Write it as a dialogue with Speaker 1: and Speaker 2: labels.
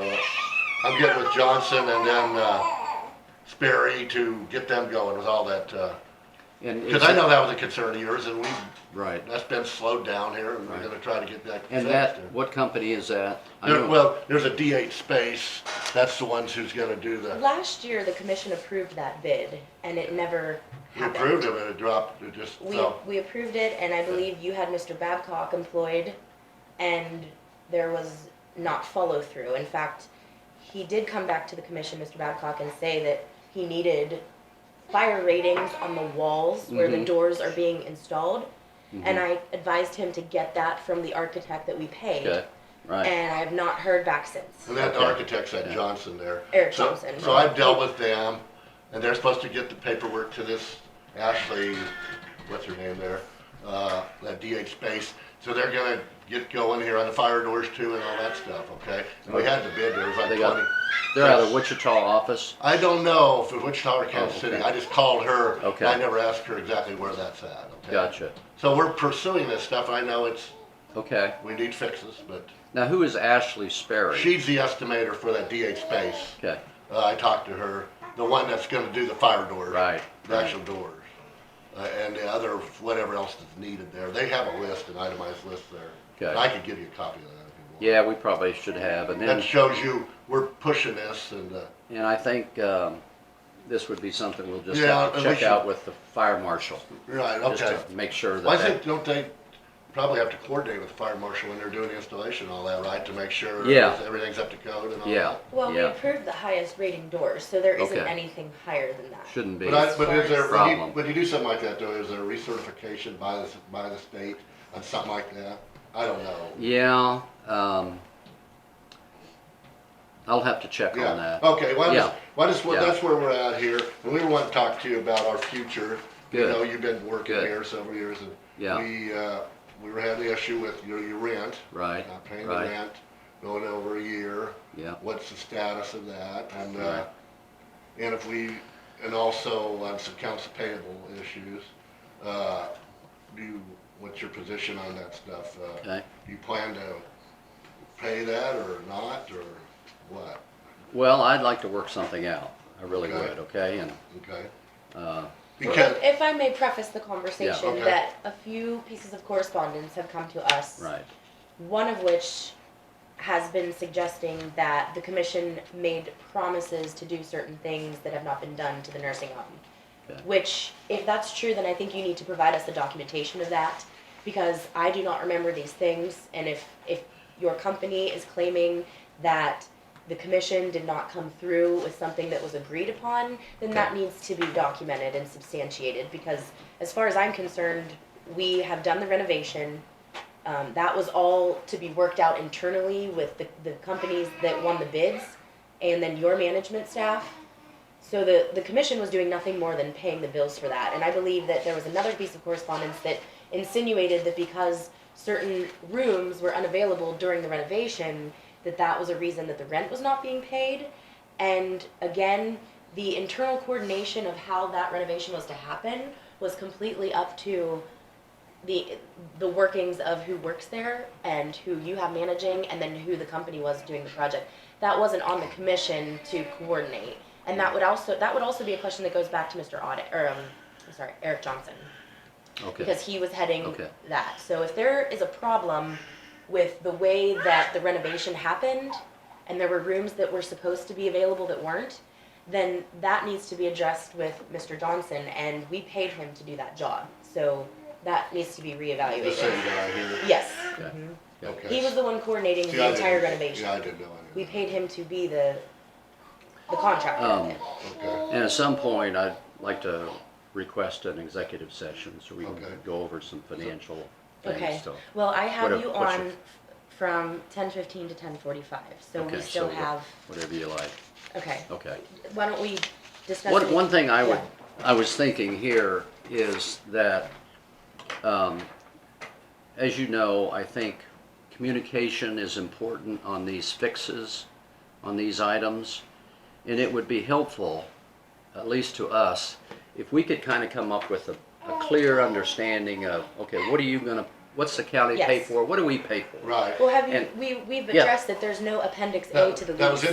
Speaker 1: Uh, I'm getting with Johnson and then, uh, Sperry to get them going with all that, uh,
Speaker 2: And
Speaker 1: cause I know that was a concern of yours and we,
Speaker 2: Right.
Speaker 1: that's been slowed down here and we're gonna try to get that fixed.
Speaker 2: And that, what company is that? I
Speaker 1: There-
Speaker 2: know-
Speaker 1: well, there's a D eight space, that's the ones who's gonna do the,
Speaker 3: Last year, the commission approved that bid and it never
Speaker 1: we
Speaker 3: happened.
Speaker 1: approved it, but it dropped, it just
Speaker 3: We,
Speaker 1: fell.
Speaker 3: we approved it and I believe you had Mr. Babcock employed and there was not follow through. In fact, he did come back to the commission, Mr. Babcock, and say that he needed fire ratings on the walls where the
Speaker 1: Mm-hmm.
Speaker 2: Mhm.
Speaker 3: doors are being installed. And
Speaker 2: Mhm.
Speaker 3: I advised him to get that from the architect that we paid.
Speaker 2: Okay, right.
Speaker 3: And I have not heard back since.
Speaker 1: And that
Speaker 2: Okay.
Speaker 1: architect's that
Speaker 2: Yeah.
Speaker 1: Johnson there.
Speaker 3: Eric
Speaker 1: So-
Speaker 3: Johnson.
Speaker 1: So I've dealt with them, and they're supposed to get the paperwork to this Ashley, what's her name there, uh, that DH Space. So they're gonna get going here on the fire doors too and all that stuff, okay? And we had the bid, there was like
Speaker 2: They got-
Speaker 1: twenty.
Speaker 2: They're out of Wichita office.
Speaker 1: I don't know if it's Wichita or Kansas
Speaker 2: Oh, okay.
Speaker 1: City, I just called her. and
Speaker 2: Okay.
Speaker 1: I never asked her exactly where that's at, okay?
Speaker 2: Gotcha.
Speaker 1: So we're pursuing this stuff, I know it's,
Speaker 2: Okay.
Speaker 1: we need fixes, but
Speaker 2: Now, who is Ashley Sperry?
Speaker 1: she's the estimator for that DH Space.
Speaker 2: Okay,
Speaker 1: Uh, I talked to her, the one that's gonna do the fire doors.
Speaker 2: Right,
Speaker 1: The
Speaker 2: right.
Speaker 1: actual doors. Uh, and the other, whatever else is needed there. They have a list, an itemized list there.
Speaker 2: Okay.
Speaker 1: I could give you a copy of that if you want.
Speaker 2: yeah, we probably should have, and
Speaker 1: That
Speaker 2: then,
Speaker 1: shows you, we're pushing this and, uh,
Speaker 2: and I think, um, this would be something we'll just
Speaker 1: Yeah,
Speaker 2: have to
Speaker 1: and we
Speaker 2: check out
Speaker 1: should-
Speaker 2: with the fire marshal,
Speaker 1: right,
Speaker 2: just
Speaker 1: okay.
Speaker 2: to make sure
Speaker 1: Well, I
Speaker 2: that
Speaker 1: think,
Speaker 2: that,
Speaker 1: don't they probably have to coordinate with the fire marshal when they're doing the installation and all that, right? To make sure
Speaker 2: Yeah.
Speaker 1: everything's up to code and all that?
Speaker 2: yeah,
Speaker 3: Well, we
Speaker 2: yeah,
Speaker 3: approved the highest rating doors, so there isn't
Speaker 2: Okay.
Speaker 3: anything higher than that.
Speaker 2: shouldn't be.
Speaker 1: But I, but is there, when you,
Speaker 2: Problem.
Speaker 1: when you do something like that though, is there recertification by the, by the state on something like that? I don't know.
Speaker 2: Yeah, um, I'll have to check on
Speaker 1: Yeah, Oh.
Speaker 2: that.
Speaker 1: okay, well, I
Speaker 2: Yeah.
Speaker 1: just, well, I just, well,
Speaker 2: Yeah.
Speaker 1: that's where we're at here, and we want to talk to you about our future. You
Speaker 2: Good.
Speaker 1: know, you've been working
Speaker 2: Good.
Speaker 1: here several years, and
Speaker 2: Yeah.
Speaker 1: we, uh, we were having the issue with your, your rent,
Speaker 2: Right,
Speaker 1: not paying the
Speaker 2: right,
Speaker 1: rent, going over a year,
Speaker 2: yeah,
Speaker 1: what's the status of that, and, uh,
Speaker 2: Right.
Speaker 1: and if we, and also on some council payable issues, uh, do, you- what's your position on that stuff? Uh,
Speaker 2: okay.
Speaker 1: You plan to pay that or not, or what,
Speaker 2: Well, I'd like to work something out, I really
Speaker 1: Okay.
Speaker 2: would, okay, and,
Speaker 1: okay?
Speaker 2: uh,
Speaker 1: Because,
Speaker 3: If if I may preface the conversation,
Speaker 1: okay.
Speaker 3: that a few pieces of correspondence have come to us.
Speaker 2: right,
Speaker 3: One of which has been suggesting that the commission made promises to do certain things that have not been done to the nursing home.
Speaker 2: Okay.
Speaker 3: Which, if that's true, then I think you need to provide us the documentation of that, because I do not remember these things, and if, if your company is claiming that the commission did not come through with something that was agreed upon, then that needs to be documented and substantiated, because as far as I'm concerned, we have done the renovation, um, that was all to be worked out internally with the, the companies that won the bids and then your management staff. So the, the commission was doing nothing more than paying the bills for that. And I believe that there was another piece of correspondence that insinuated that because certain rooms were unavailable during the renovation, that that was a reason that the rent was not being paid. And again, the internal coordination of how that renovation was to happen was completely up to the the workings of who works there and who you have managing and then who the company was doing the project that wasn't on the commission to coordinate and that would also that would also be a question that goes back to mr audit or um, i'm sorry eric johnson
Speaker 2: okay,
Speaker 3: because he was heading
Speaker 2: Okay.
Speaker 3: that so if there is a problem with the way that the renovation happened and there were rooms that were supposed to be available that weren't then that needs to be addressed with mr johnson and we paid him to do that job so that needs to be reevaluated
Speaker 1: the same guy here,
Speaker 3: Yes.
Speaker 2: okay.
Speaker 3: Mhm.
Speaker 1: okay.
Speaker 3: He was the one coordinating
Speaker 1: See, I
Speaker 3: the
Speaker 1: didn't-
Speaker 3: entire renovation.
Speaker 1: Yeah, I didn't know any
Speaker 3: We
Speaker 1: of
Speaker 3: paid him to be the, the contractor.
Speaker 2: Um,
Speaker 1: that, okay.
Speaker 2: And at some point, I'd like to request an executive session so we can
Speaker 1: Okay.
Speaker 2: go over some financial
Speaker 3: Okay.
Speaker 2: things still.
Speaker 3: Well, I have
Speaker 2: Whatever,
Speaker 3: you
Speaker 2: push
Speaker 3: on
Speaker 2: it.
Speaker 3: from ten fifteen to ten forty-five, so
Speaker 2: Okay,
Speaker 3: we still
Speaker 2: so wha-
Speaker 3: have,
Speaker 2: Whatever you like,
Speaker 3: okay.
Speaker 2: okay.
Speaker 3: Why don't we discuss?
Speaker 2: One,
Speaker 3: it?
Speaker 2: one thing I would,
Speaker 3: Yeah.
Speaker 2: I was thinking here is that, um, as you know, I think communication is important on these fixes, on these items. And it would be helpful, at least to us, if we could kind of come up with a, a clear understanding of, okay, what are you gonna, what's the county pay
Speaker 3: Yes.
Speaker 2: for? What do we pay for?
Speaker 1: Right.
Speaker 3: Well, have you,
Speaker 2: and-
Speaker 3: we, we've
Speaker 2: Yeah.
Speaker 3: addressed that there's no appendix A
Speaker 1: That-
Speaker 3: to the lease.
Speaker 1: that was in